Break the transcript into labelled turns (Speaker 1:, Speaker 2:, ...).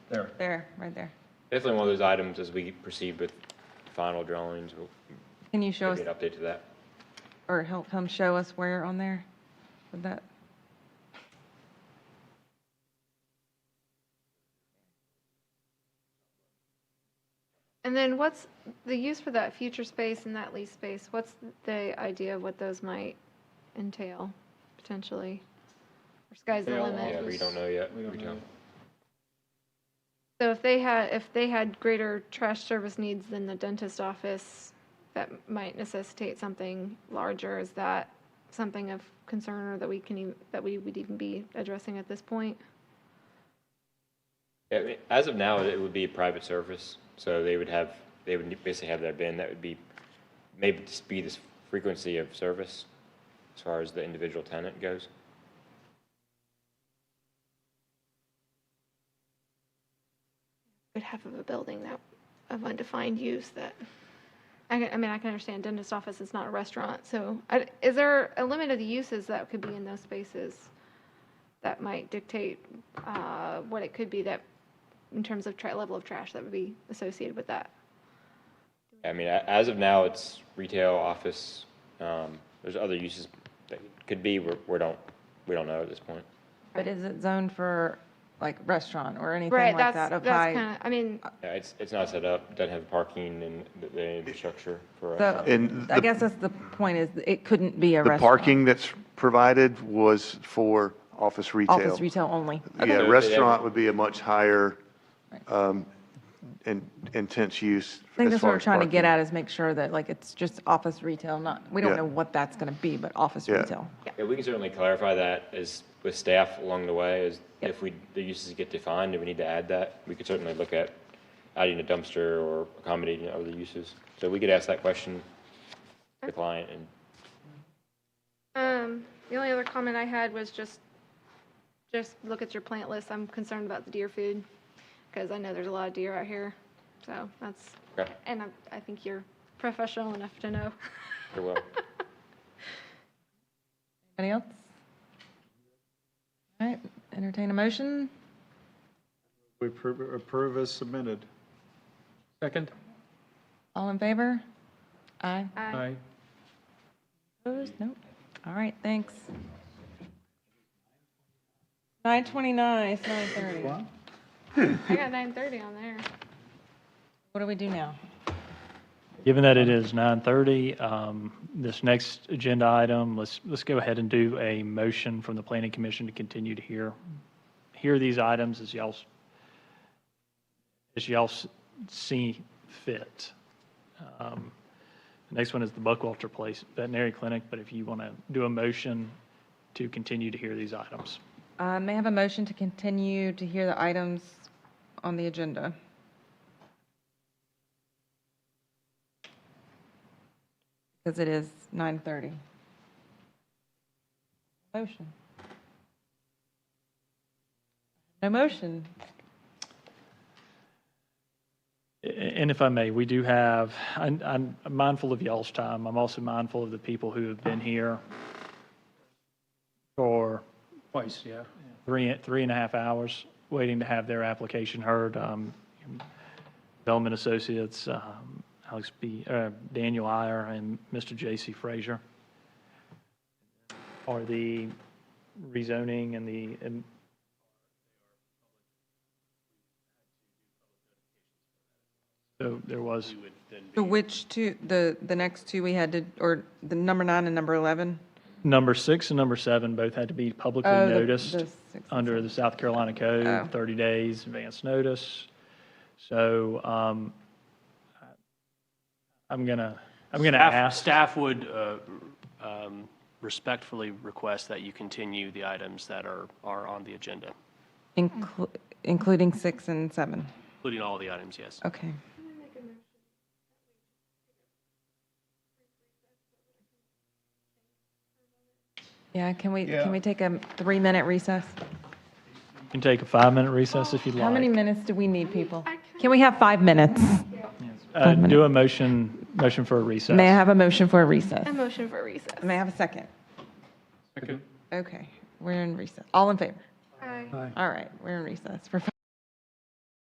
Speaker 1: There.
Speaker 2: There, right there.
Speaker 3: Definitely one of those items as we proceed with final drawings, we'll
Speaker 2: Can you show us,
Speaker 3: maybe an update to that.
Speaker 2: or help him show us where on there? Would that,
Speaker 4: And then what's the use for that future space and that lease space? What's the idea of what those might entail potentially? Or sky's the
Speaker 1: Entail
Speaker 3: Yeah,
Speaker 4: limit?
Speaker 3: we
Speaker 1: Office.
Speaker 3: don't know yet.
Speaker 1: We don't know.
Speaker 4: So if they had, if they had greater trash service needs than the dentist office, that might necessitate something larger. Is that something of concern or that we can, ev- that we would even be addressing at this point?
Speaker 3: Yeah, I mean, as of now, it would be a private service, so they would have, they would basically have their bin, that would be, maybe just be this frequency of service as far as the individual tenant goes.
Speaker 4: good half of a building that, of undefined use that, I, can- I mean, I can understand dentist office is not a restaurant, so, I- is there a limit of the uses that could be in those spaces? That might dictate, uh, what it could be that, in terms of tra- level of trash that would be associated with that?
Speaker 3: I mean, a- as of now, it's retail, office, um, there's other uses that could be, we're, we don't, we don't know at this point.
Speaker 2: but is it zoned for like restaurant or anything
Speaker 4: Right,
Speaker 2: like
Speaker 4: that's,
Speaker 2: that? Uh,
Speaker 4: that's
Speaker 2: up high?
Speaker 4: kinda, I mean,
Speaker 3: Yeah, it's, it's not set up, doesn't have parking and the- the infrastructure for.
Speaker 2: So-
Speaker 5: And
Speaker 2: I
Speaker 5: the-
Speaker 2: guess that's the point is it couldn't be a
Speaker 5: The
Speaker 2: restaurant.
Speaker 5: parking that's provided was for office retail.
Speaker 2: Office retail only.
Speaker 5: Yeah,
Speaker 3: Okay.
Speaker 5: restaurant would be a much higher um, in- intense
Speaker 2: I
Speaker 5: use
Speaker 2: think
Speaker 5: as
Speaker 2: that's what
Speaker 5: far
Speaker 2: we're
Speaker 5: as
Speaker 2: trying to get
Speaker 5: parking.
Speaker 2: at is make sure that like it's just office retail, not, we don't
Speaker 5: Yeah.
Speaker 2: know what that's going to be, but office
Speaker 5: Yeah.
Speaker 2: retail.
Speaker 3: Yeah, we can certainly clarify that as, with staff along the way, as if we, the uses get defined, and we need to add that, we could certainly look at adding a dumpster or accommodating other uses. So we could ask that question to the client, and
Speaker 4: Um, the only other comment I had was just, just look at your plant list. I'm concerned about the deer food, because I know there's a lot of deer out here. So that's,
Speaker 3: Okay.
Speaker 4: and I, I think you're professional enough to know.
Speaker 3: very well.
Speaker 2: Any else? All right, entertain a motion.
Speaker 1: We appro- approve as submitted. Second?
Speaker 2: All in favor? Aye.
Speaker 4: I
Speaker 1: Aye.
Speaker 2: Opposed? Nope. All right, thanks. 9:29, it's 9:30.
Speaker 4: I got nine thirty on there.
Speaker 2: What do we do now?
Speaker 6: Given that it is 9:30, um, this next agenda item, let's, let's go ahead and do a motion from the planning commission to continue to hear, hear these items as y'all, s- as y'all s- see fit. Um, The Next one is the Buckwalter Place Veterinary Clinic, but if you want to do a motion to continue to hear these items.
Speaker 2: Uh, May I have a motion to continue to hear the items on the agenda? Because it is 9:30. Motion. No motion.
Speaker 6: And if I may, we do have, I'm- I'm mindful of y'all's time. I'm also mindful of the people who have been here for
Speaker 1: Twice, yeah.
Speaker 6: three, three and a half hours waiting to have their application heard. Um, Bellman Associates, um, Alex B., uh, Daniel Iyer and Mr. J.C. Frazier are the rezoning and the, and so there was,
Speaker 2: So which two, the, the next two we had to, or the number nine and number 11?
Speaker 6: number six and number seven both had to be publicly
Speaker 2: Oh, the- the
Speaker 6: noticed
Speaker 2: six and
Speaker 6: under the South Carolina
Speaker 2: Oh.
Speaker 6: Code, 30 days advance notice. So um, I'm gonna, I'm gonna
Speaker 7: Staff-
Speaker 6: ask,
Speaker 7: Staff would uh, um, respectfully request that you continue the items that are, are on the agenda,
Speaker 2: Inclu- Including six and seven.
Speaker 7: including all the items, yes.
Speaker 2: Okay. Yeah, can we,
Speaker 1: Yeah.
Speaker 2: can we take a three-minute recess?
Speaker 6: you can take a five-minute recess if you'd
Speaker 2: How many
Speaker 6: like.
Speaker 2: minutes do we need, people? Can we have five minutes?
Speaker 6: Uh, Do a motion, motion for a recess.
Speaker 2: May I have a motion for a recess?
Speaker 4: A motion for recess.
Speaker 2: May I have a second?
Speaker 1: Second.
Speaker 2: Okay, we're in recess. All in favor?
Speaker 4: Aye.
Speaker 2: All right, we're in recess for five